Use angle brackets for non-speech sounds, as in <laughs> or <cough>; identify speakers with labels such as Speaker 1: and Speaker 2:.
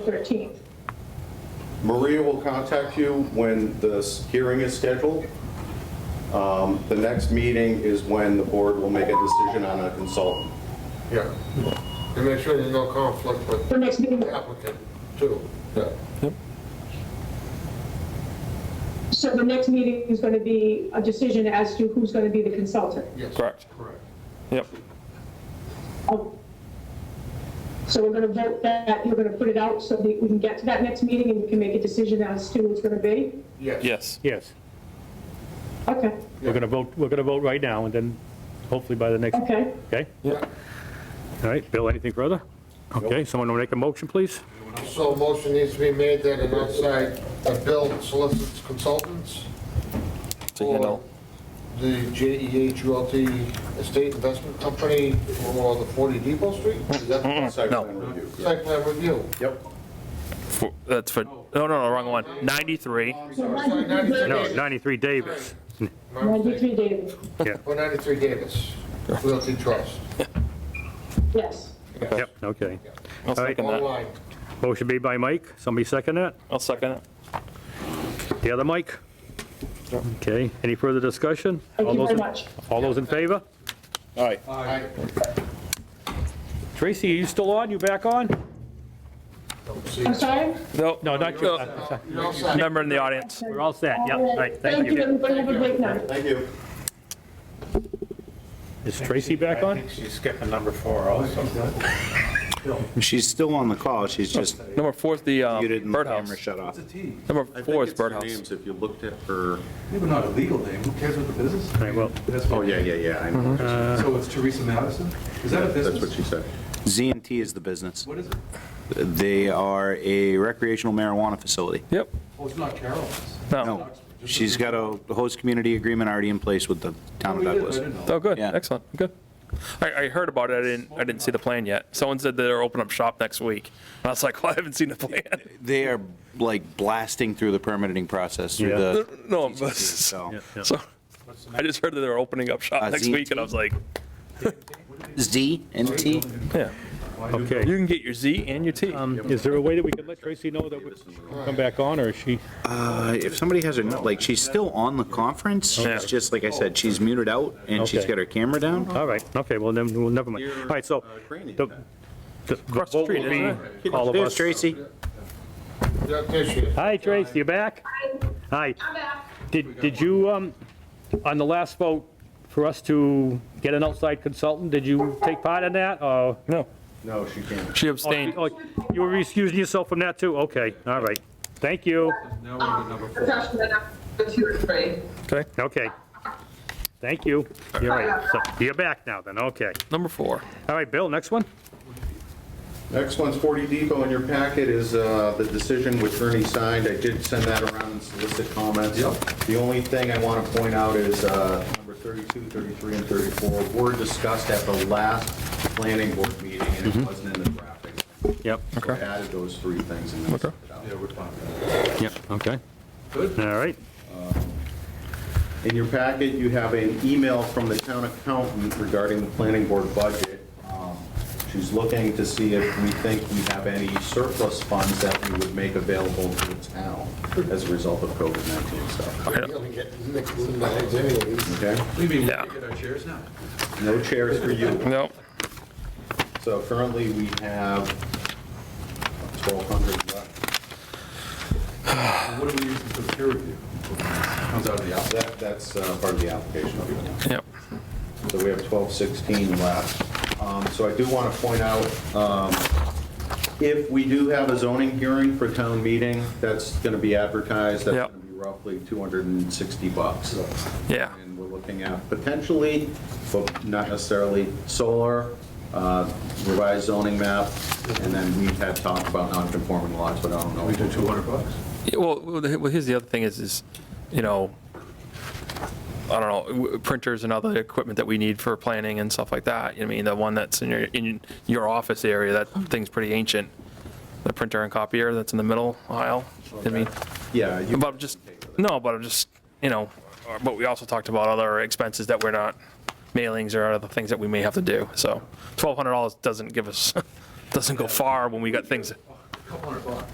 Speaker 1: 13th.
Speaker 2: Maria will contact you when this hearing is scheduled. Um, The next meeting is when the board will make a decision on a consultant.
Speaker 3: Yeah, and make sure there's no conflict with
Speaker 1: The next meeting,
Speaker 3: the applicant, too. Yeah.
Speaker 1: so the next meeting is going to be a decision as to who's going to be the consultant.
Speaker 3: Yes.
Speaker 4: Correct.
Speaker 3: Correct.
Speaker 4: Yep,
Speaker 1: Oh. So we're going to vote that, you're going to put it out so that we can get to that next meeting and we can make a decision as to who it's going to be?
Speaker 3: Yes.
Speaker 4: yes.
Speaker 5: Yes,
Speaker 1: Okay,
Speaker 5: we're going to vote, we're going to vote right now, and then hopefully by the next,
Speaker 1: okay.
Speaker 5: okay? All right, Bill, anything further? Okay, someone will make a motion, please?
Speaker 3: So a motion needs to be made that an outside, a bill solicits consultants
Speaker 4: To
Speaker 3: for
Speaker 4: handle,
Speaker 3: the JEH Realty Estate Investment Company for the 40 Depot Street? Is that the
Speaker 2: Site
Speaker 4: No.
Speaker 2: plan review.
Speaker 3: site plan review?
Speaker 2: Yep.
Speaker 4: for- that's for, no, no, no, wrong one, 93.
Speaker 1: So
Speaker 3: sorry, 93.
Speaker 5: No, 93 Davis.
Speaker 3: My mistake.
Speaker 1: 93 David,
Speaker 3: For 93 Davis Realty Trust,
Speaker 1: yes.
Speaker 5: Yep, okay.
Speaker 4: I'll
Speaker 5: All right.
Speaker 4: second that.
Speaker 3: online.
Speaker 5: Motion made by Mike, somebody second that?
Speaker 4: I'll second it.
Speaker 5: The other Mike? Okay, any further discussion?
Speaker 1: Thank
Speaker 5: All
Speaker 1: you
Speaker 5: those
Speaker 1: very
Speaker 5: in-
Speaker 1: much.
Speaker 5: All those in favor?
Speaker 4: All right.
Speaker 3: Aye.
Speaker 5: Tracy, you still on, you back on?
Speaker 3: Don't see
Speaker 1: I'm
Speaker 3: it.
Speaker 1: sorry?
Speaker 4: No,
Speaker 5: No, not you. Uh,
Speaker 3: No, You're outside.
Speaker 4: member in the audience.
Speaker 5: We're all set, yeah, all right, thank
Speaker 1: Thank you,
Speaker 5: you.
Speaker 1: everybody, have a great night.
Speaker 2: Thank you.
Speaker 5: Is Tracy back
Speaker 6: I
Speaker 5: on?
Speaker 6: think she's skipping number four also.
Speaker 7: She's still on the call, she's just
Speaker 4: Number four is the uh,
Speaker 7: muted and the camera
Speaker 4: Oh, birdhouse.
Speaker 7: shut off.
Speaker 4: Number
Speaker 2: I think
Speaker 4: four is
Speaker 2: it's their
Speaker 4: birdhouse.
Speaker 2: names if you looked at her.
Speaker 8: Maybe not a legal name, who cares what the business is?
Speaker 5: All right, well,
Speaker 2: Oh, yeah, yeah, yeah. I know.
Speaker 4: Mm-hmm.
Speaker 8: So it's Teresa Madison? Is that a
Speaker 2: That's what
Speaker 8: business?
Speaker 2: she said.
Speaker 7: Z and T is the business.
Speaker 8: What is it?
Speaker 7: They are a recreational marijuana facility.
Speaker 4: Yep,
Speaker 8: Oh, it's not Carol's.
Speaker 4: no.
Speaker 7: No, she's got a host community agreement already in place with the
Speaker 8: Oh,
Speaker 7: town of
Speaker 8: we did, I
Speaker 7: Douglas.
Speaker 8: didn't know.
Speaker 4: Oh, good,
Speaker 7: Yeah.
Speaker 4: excellent, good. I, I heard about it, I didn't, I didn't see the plan yet. Someone said they're opening up shop next week. And I was like, <laughs> well, I haven't seen the plan.
Speaker 7: They are like blasting through the permitting process through
Speaker 5: Yeah.
Speaker 7: the,
Speaker 4: No, but-
Speaker 7: <laughs> so.
Speaker 4: <laughs> so, I just heard that they're opening up
Speaker 7: Uh,
Speaker 4: shop next
Speaker 7: Z&T?
Speaker 4: week, and I was like,
Speaker 7: Z and T?
Speaker 4: yeah. You
Speaker 5: okay.
Speaker 4: can get your Z and your T.
Speaker 5: Um, Is there a way that we can let Tracy know that we can come back on, or is she?
Speaker 7: Uh, If somebody has her, nu- like, she's still on the conference,
Speaker 4: Yeah.
Speaker 7: she's just, like I said, she's muted out and she's
Speaker 5: Okay.
Speaker 7: got her camera down.
Speaker 5: All right, okay, well, then, well, never mind. All right, so,
Speaker 2: Training.
Speaker 5: the, the the
Speaker 4: the
Speaker 5: vote
Speaker 4: street,
Speaker 5: will
Speaker 4: isn't
Speaker 5: be all of
Speaker 7: There's
Speaker 5: us.
Speaker 7: Tracy.
Speaker 3: Yeah, there she is.
Speaker 5: Hi, Trace, you back? Hi. Did, did you, um, on the last vote, for us to get an outside consultant, did you take part in that, or?
Speaker 4: No,
Speaker 2: No, she can't.
Speaker 4: she abstained.
Speaker 5: Oh, You were excusing yourself from that, too? Okay, all right. Thank you.
Speaker 8: Now we're on to number four.
Speaker 4: Okay,
Speaker 5: Okay. Thank you. You're right. So, you're back now, then, okay.
Speaker 4: number four.
Speaker 5: All right, Bill, next one?
Speaker 2: Next one's 40 Depot. In your packet is uh, the decision which Ernie signed. I did send that around and solicit comments. The only thing I want to point out is uh, number 32, 33, and 34 were discussed at the last planning board meeting, and it wasn't in the drafting.
Speaker 5: Yep.
Speaker 2: So I added those three things and then sent it out.
Speaker 8: Yeah, we're fine.
Speaker 5: Yep, okay.
Speaker 8: Good.
Speaker 5: All right.
Speaker 2: In your packet, you have an email from the town accountant regarding the planning board budget. Um, She's looking to see if we think we have any surplus funds that we would make available to the town as a result of COVID-19 stuff.
Speaker 3: You're gonna get mixed in the heads anyways.
Speaker 2: Okay?
Speaker 8: We mean, we
Speaker 4: Yeah.
Speaker 8: get our chairs now.
Speaker 2: No chairs for you.
Speaker 4: No,
Speaker 2: So currently, we have 1,200 left.
Speaker 8: And What are we using for the peer review? Comes out of the outside.
Speaker 2: That- That's uh, part of the application.
Speaker 4: yep.
Speaker 2: So we have 1216 left. Um, So I do want to point out, um, if we do have a zoning hearing for town meeting, that's going to be advertised, that's
Speaker 4: Yep.
Speaker 2: going to be roughly 260 bucks.
Speaker 4: Yeah.
Speaker 2: And we're looking at potentially, but not necessarily, solar, uh, revised zoning map, and then we had talked about non-conforming lots, but I don't know.
Speaker 8: We do 200 bucks.
Speaker 4: Yeah, Well, well, the- well, here's the other thing is, is, you know, I don't know, w- printers and other equipment that we need for planning and stuff like that. I mean, the one that's in your, in your office area, that thing's pretty ancient. The printer and copier that's in the middle aisle. I mean,
Speaker 2: Yeah. you-
Speaker 4: but I'm just, no, but I'm just, you know, but we also talked about other expenses that we're not, mailings or other things that we <laughs> may have to do. So $1,200 doesn't give us, doesn't go far when we got things.
Speaker 8: couple hundred bucks.